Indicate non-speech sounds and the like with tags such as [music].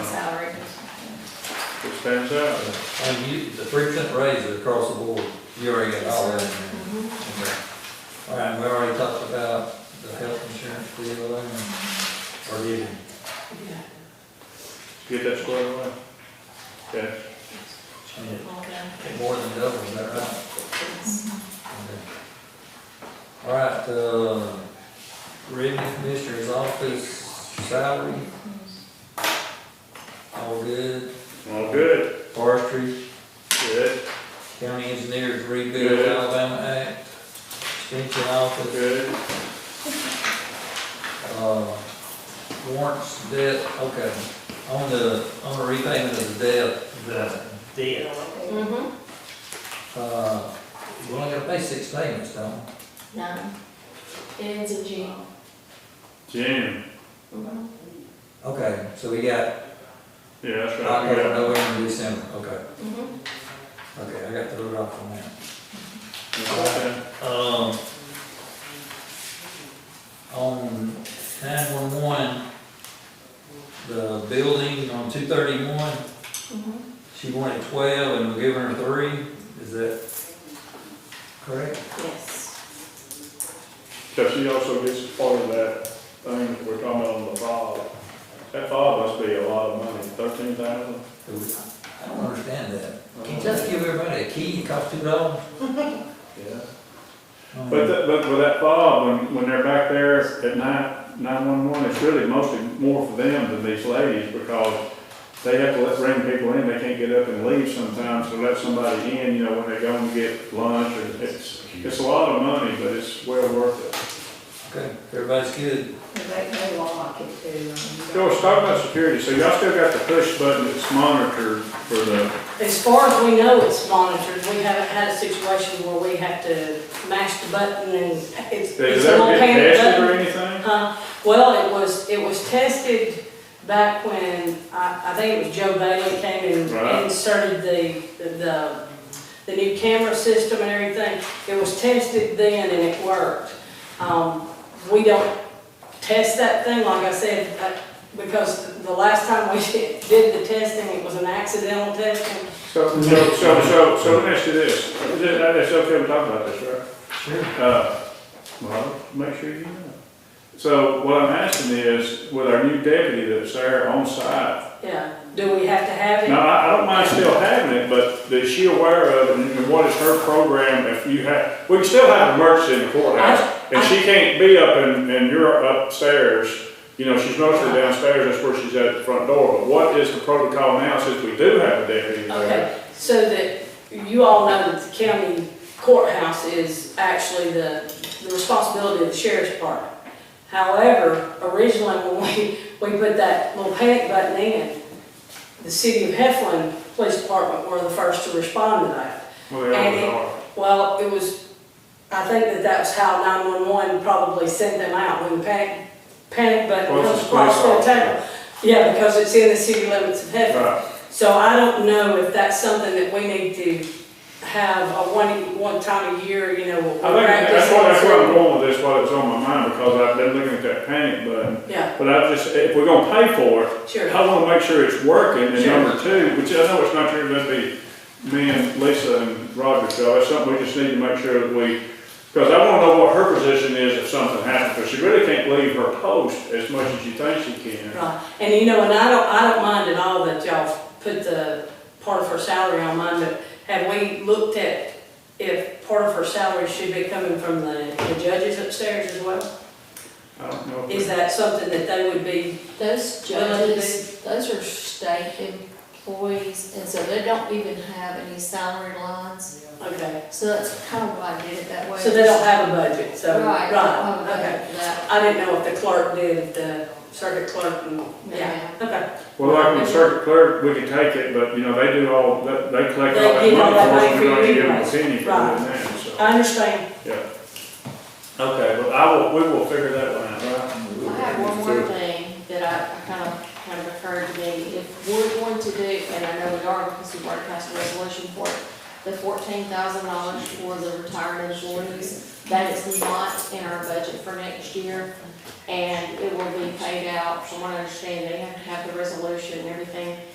pass out. And you, the three percent raise is across the board, you already got all that in there. Okay. All right, we already talked about the health insurance deal, and, or did we? Get that squared away. Okay, Yeah, it more than double, is that right? Okay. All right, uh, revenue commissioner's office salary. All good, all good, forestry, good, county engineers rebuild Yeah. Alabama Act, extension office. good. Uh, warrants, debt, okay, on the, on the repayment of the debt, The debt, Mm-hmm, uh, we only gotta pay six payments, don't we? nine. It ends in June. Jim, Mhm. Okay, so we got yeah, that's right. we October, got- November, December, okay, Mhm. okay, I got to look off on that. Okay. Um, on nine-one-one, the building on two thirty-one, Mhm. she wanted twelve and we're giving her three, is that correct? Yes. Cause she also gets part of that thing that we're talking about on the fob. That fob must be a lot of money, thirteen thousand. Do we- I don't understand that. Can you just give everybody a key and cost two dollars? Yeah. But, that- but with that fob, when, when they're back there at nine, nine-one-one, it's really mostly more for them than these ladies, because they have to let, bring people in, they can't get up and leave sometimes, to let somebody in, you know, when they go and get lunch, or it's, it's a lot of money, but it's well worth Okay, everybody's good. They, they lock it too. it. um, and So, you let's talk about security, so y'all still got the push button that's monitored for the, As far as we know, it's monitored. We haven't had a situation where we have to mash the button and it's, does it's that an old get panic tested button. or anything? Huh? Well, it was, it was tested back when, I, I think it was Joe Bailey came Right. and inserted the, the, the new camera system and everything. It was tested then and it worked. Um, we don't test that thing, like I said, uh, because the last time we [laughs] did the testing, it was an accidental testing. So, so, so, so, so let me ask you this, is it, that's okay, we talk about this, right? Sure. Uh, well, make sure you know. So what I'm asking is, with our new deputy that's there on site, Yeah, do we have to have now, it? I, I don't mind still having it, but is she aware of, it, and what is her program if you have, we can still have emergency in the courthouse. And she can't be up and, and you're upstairs, you know, she's mostly downstairs, that's where she's at the front door. But what is the protocol now since we do have a deputy there? Okay, so that, you all know that the county courthouse is actually the, the responsibility of the sheriff's department. However, originally when we, we put that little panic button in, the city of Heflin Police Department were the first to respond to that. Well, they always are. Well, it was, I think that that's how nine-one-one probably sent them out, when the panic, panic button Well, comes it's a police across their town. officer. Yeah, because it's in the city limits of Heflin. Right, So I don't know if that's something that we need to have a one, one time a year, you know, we'll I think practice. that's why, that's where I'm going with this, why it was on my mind, because I've been looking at that panic button. Yeah, But I just, if we're gonna pay for it, sure. I wanna make sure it's working, and Sure. number two, which I know it's not sure gonna be me and Lisa and Roger's job, it's something we just need to make sure that we, because I wanna know what her position is if something happens, because she really can't leave her post as much as you think she can. Right, and you know, and I don't, I don't mind at all that y'all put the part of her salary on mine, but have we looked at if part of her salary should be coming from the, the judges upstairs as well? I don't know. Is if- that something that they would be, Those judges, those are state employees, and so they don't even have any salary lines. okay, So that's kind of why I did it that way. so they don't have a budget, so, Right. right, oh, okay. That, I didn't know if the clerk did, the circuit clerk, and, yeah, okay. Well, like with circuit clerk, we can take it, but, you know, they do all, they, they collect all that They get all that money for us, we money don't for even you give them a anyways. penny for Right. doing that, so, I understand, yeah. Okay, but I will, we will figure that one out, right? I have one more thing that I, I kind of, kind of occurred to me, if we're going to do, and I know we are, because we've already passed a resolution for it, the fourteen thousand dollars for the retired employees, that is not in our budget for next year, and it will be paid out, from what I understand, they have to have the resolution and everything